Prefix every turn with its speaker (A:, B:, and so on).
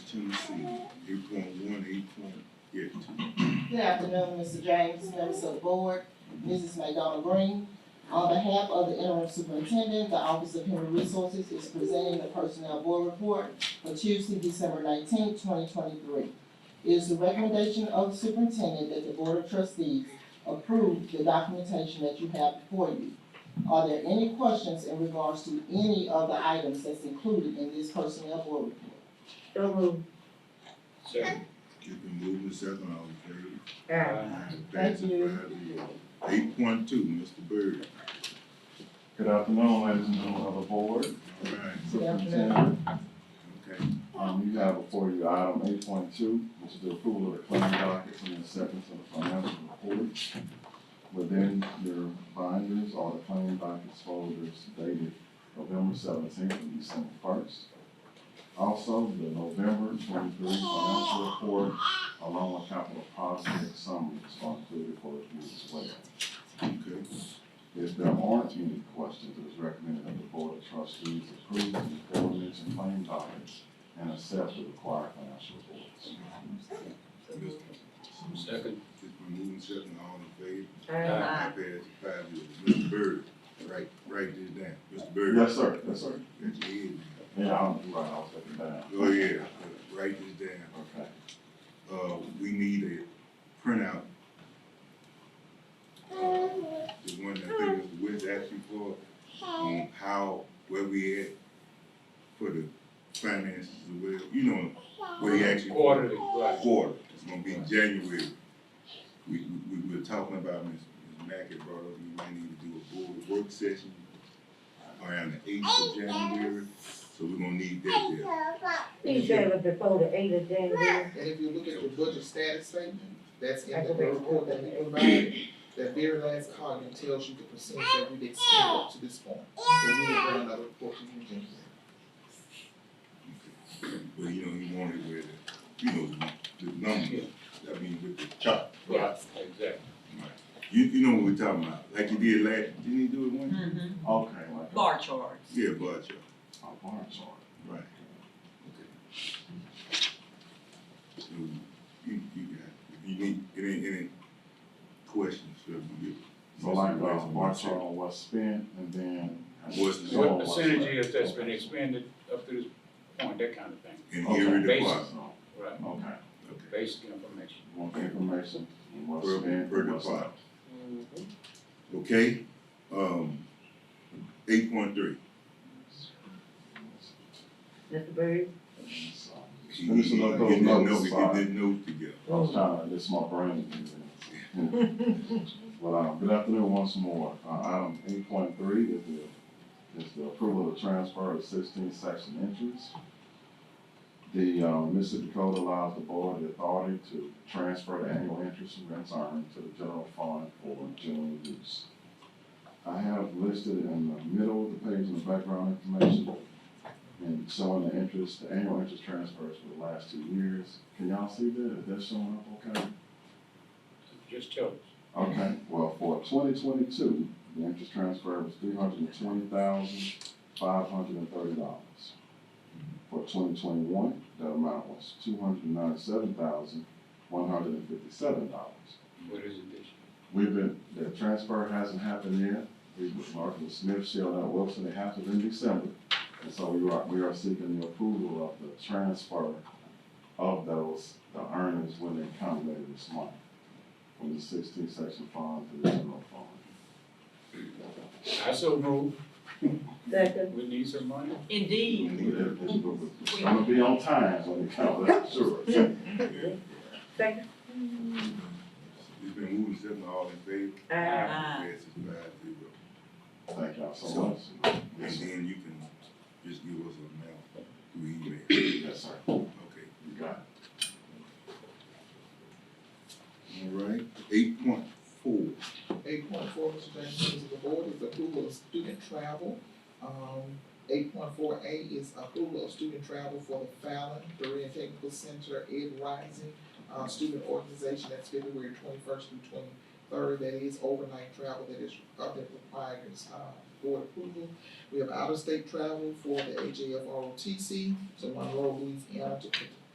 A: two C, eight point one, eight point, yeah, two.
B: Good afternoon, Mr. James, members of the board, Mrs. McDonald Green. On behalf of the interim superintendent, the Office of Human Resources is presenting the personnel board report for Tuesday, December nineteenth, twenty twenty-three. It is the recommendation of the superintendent that the board of trustees approve the documentation that you have before you. Are there any questions in regards to any of the items that's included in this personnel board report?
C: So moved.
D: Second.
A: Get the movement second, all in favor?
C: Aye.
B: Thank you.
A: Eight point two, Mr. Byrd,
E: Good afternoon, ladies and gentlemen of the board.
A: all right,
B: Good afternoon.
E: Superintendent,
A: okay.
E: Um, you have before you item eight point two, which is the approval of the claim dockets and acceptance of the financial reports. Within your binders are the claim dockets folders dated November seventeenth and December first. Also, the November twenty-three financial report along with capital project summaries are included for review as well.
A: Okay,
E: If there aren't any questions, it is recommended that the Board of Trustees approve the aforementioned claim documents and accept the required financial reports.
D: Second.
A: it's been moved second, all in favor?
C: Aye.
A: That passes five zero. Mr. Byrd, right, write this down, Mr. Byrd.
E: Yes, sir, yes, sir.
A: That's it.
E: Yeah, I'm, right, I'll take it down.
A: Oh, yeah, write this down.
E: Okay.
A: uh, we need a printout. Uh, The one that I think Mr. Wentz asked you for, on how, where we at for the finances, as well, you know, where he actually.
D: Quarterly, right.
A: Quarter, it's gonna be January. We, we, we were talking about, Ms. Ms. Mack had brought up, we might need to do a board work session around the eighth of January, so we're gonna need that there.
C: He said it was before the eighth of January.
F: And if you look at the budget status statement, that's in the report that we provided, that very last column tells you the percentage that we've exceeded up to this point. So we will bring another report to you in January.
A: But you know, he wanted with, you know, the numbers, I mean, with the chart.
D: Right, exactly.
A: You, you know what we're talking about, like you did last, didn't he do it one?
G: Mm-hmm,
E: Okay, like uh,
G: bar charts.
A: Yeah, bar chart,
E: a bar chart.
A: right. Okay. So, you, you got, it. if you need, any, any questions, so you.
E: So like, uh, bar chart on what's spent and then.
A: What's-
D: What percentage is that's been expended up to this point, that kind of thing,
A: In
E: Okay.
A: every
D: Basis.
A: department,
D: right?
E: Okay,
A: okay,
D: Basic information.
E: want the information, and what's
A: per,
E: spent,
A: per
E: what's not.
A: department, okay? Um, eight point three.
C: Mr. Byrd?
E: So,
A: She
E: Finish
A: didn't
E: another
A: know, we
E: note,
A: get
E: sorry.
A: that note together.
E: I was trying to, this my brain. But, um, good afternoon once more. Uh, item eight point three is the, is the approval of the transfer of sixteen section entries. The, um, Mississippi Code allows the board the authority to transfer the annual interest and rents earned to the general fund for general use. I have listed in the middle of the page in the background information and showing the interest, the annual interest transfers for the last two years. Can y'all see that? Is that showing up okay?
D: Just tell us.
E: Okay, well, for twenty twenty-two, the interest transfer was three hundred and twenty thousand, five hundred and thirty dollars. For twenty twenty-one, that amount was two hundred and ninety-seven thousand, one hundred and fifty-seven dollars.
D: What is it this year?
E: We've been, the transfer hasn't happened yet. We've been marking Smith, Shell, and Wilson, it happened in December. And so we are, we are seeking the approval of the transfer of those, the earnings when they come later this month. From the sixteen section fund to the general fund.
D: I so move,
C: Second.
D: we need some money.
G: Indeed,
E: It's gonna be on time when it comes, that's sure.
C: Second.
A: It's been moved and seconded, all in favor?
C: Aye.
G: Aye.
A: Passes five zero.
E: Thank y'all so much.
A: And
E: Yes, sir.
A: then you can just give us a mail through email,
E: Yes, sir. You
A: okay?
E: got it.
A: All right, eight point four,
F: Eight point four, Mr. James, members of the board, is approval of student travel. Um, eight point four A is approval of student travel for the Fallon Berean Technical Center Ed Rising, uh, student organization, that's February twenty-first through twenty-third, that is overnight travel that is, uh, that requires, uh, board approval. We have out-of-state travel for the AJFROTC to Monroe, Louisiana, to